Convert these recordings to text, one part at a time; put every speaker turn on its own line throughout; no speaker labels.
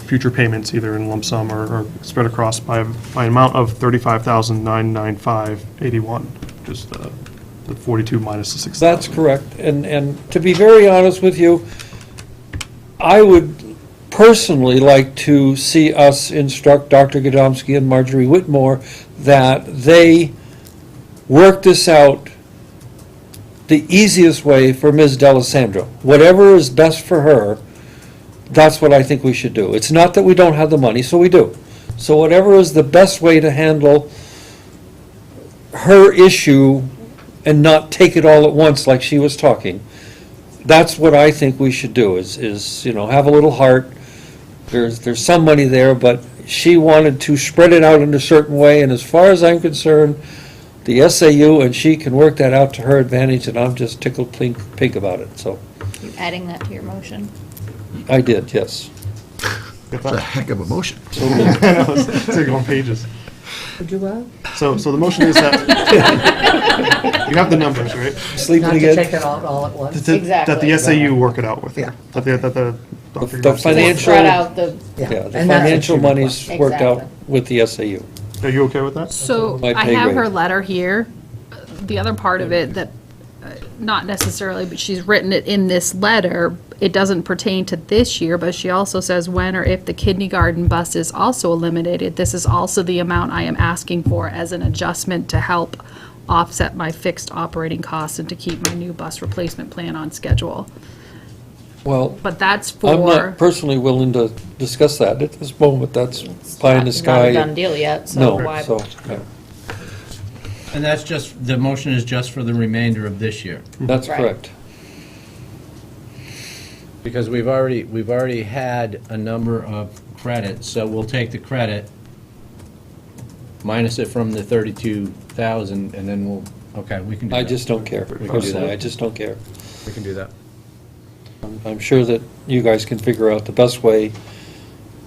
future payments, either in lump sum or or spread across by, by an amount of $35,995.81, which is the the 42 minus the 6,000.
That's correct. And, and to be very honest with you, I would personally like to see us instruct Dr. Godomsky and Marjorie Whitmore that they work this out the easiest way for Ms. Delisandro. Whatever is best for her, that's what I think we should do. It's not that we don't have the money, so we do. So whatever is the best way to handle her issue and not take it all at once like she was talking. That's what I think we should do, is, is, you know, have a little heart. There's, there's some money there, but she wanted to spread it out in a certain way, and as far as I'm concerned, the SAU and she can work that out to her advantage, and I'm just tickled pink, pink about it, so,
You adding that to your motion?
I did, yes.
Good
It's a
thought.
heck of a motion.
It's like on pages.
Would you what?
So, so the motion is that, you have the numbers, right?
Sleeping
Not to take
again?
it out all at once.
That- that- That the
Exactly.
SAU work it out with.
Yeah.
That the, that the. Dr.
The
Godomsky-
financial-
Spread out the,
Yeah, the
and that's what
financial
you
money's
request.
worked out
Exactly.
with the SAU.
Are you okay with that?
So
My
I
pay
have her
grade.
letter here. The other part of it that, uh, not necessarily, but she's written it in this letter. It doesn't pertain to this year, but she also says when or if the kindergarten bus is also eliminated, this is also the amount I am asking for as an adjustment to help offset my fixed operating costs and to keep my new bus replacement plan on schedule.
Well,
But that's
I'm not
for,
personally willing to discuss that at this moment, that's pie in the
it's not
sky.
a done deal yet, so
No,
why?
so, yeah,
And that's just, the motion is just for the remainder of this year,
that's
Right.
correct.
because we've already, we've already had a number of credits, so we'll take the credit, minus it from the 32,000, and then we'll, okay, we can do that.
I just don't care.
We can do
Personally,
that.
I just don't care.
We can do that.
I'm sure that you guys can figure out the best way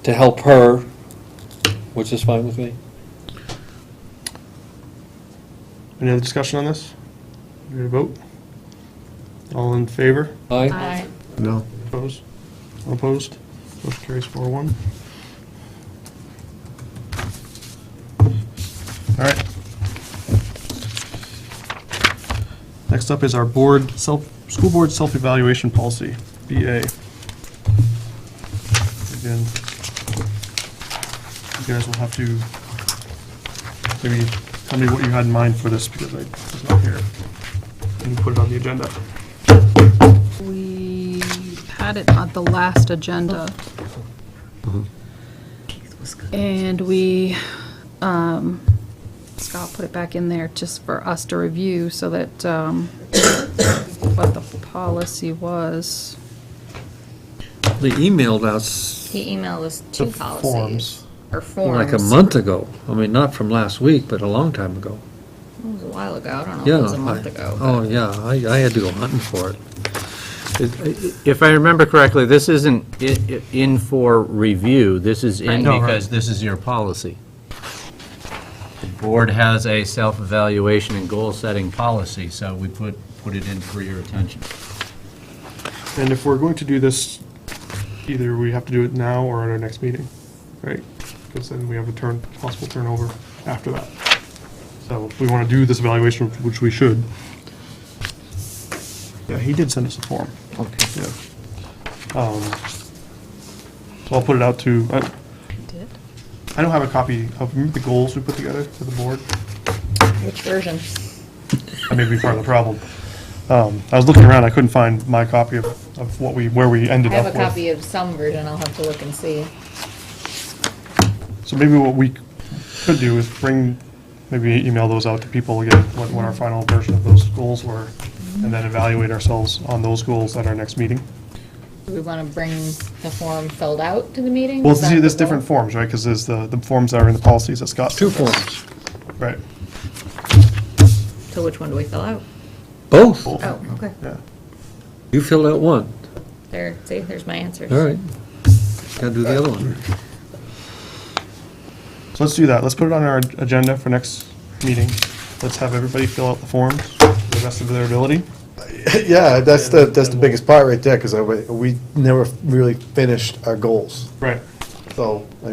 to help her, which is fine with me.
Any other discussion on this? You Ready to vote? All in favor?
Aye?
Aye.
No,
Opposed? All Opposed? Motion carries four one. All right. Next up is our board self, school board self-evaluation policy, BA. Again, you guys will have to maybe tell me what you had in mind for this because I was not here. And put it on the agenda.
we had it on the last agenda. And we, um, Scott put it back in there just for us to review so that, um, what the policy was.
They emailed us
He emailed us two
The forms.
policies. Or forms.
like a month ago. I mean, not from last week, but a long time ago.
It was a while ago, I don't know,
Yeah.
if Oh, it was a month ago. but-
Oh, yeah, I, I had to go hunting for it.
If I remember correctly, this isn't i- i- in for review, this is in
Right.
No, right.
because this is your policy. The board has a self-evaluation and goal-setting policy, so we put, put it in for your attention.
And if we're going to do this, either we have to do it now or at our next meeting, right? Because then we have a turn, possible turnover after that. So if we want to do this evaluation, which we should. Yeah, he did send us a form.
Okay.
Yeah. Um, So I'll put it out to, I
Did?
I don't have a copy of the goals we put together for the board.
oh.
Which version?
That may be part of the problem. Um, I was looking around, I couldn't find my copy of, of what we, where we
I
ended up
have a
with.
copy of some version, I'll have to look and see.
So maybe what we could do is bring, maybe email those out to people again, what, what our final version of those goals were, and then evaluate ourselves on those goals at our next meeting.
Do we want to bring the form filled out to the meeting?
Well,
Is that
see, there's
the
different
goal?
forms, right, because there's the, the forms that are in the policies that Scott.
Two
sent us.
forms.
Right,
So which one do we fill out?
Both.
Both.
Oh, okay.
yeah.
You filled out one.
There, see, there's my answers.
All right. Got to do the other one.
So let's do that, let's put it on our agenda for next meeting, let's have everybody fill out the forms, to the best of their ability.
Yeah, that's the, that's the biggest part right there, because we never really finished our goals.
Right.
So, I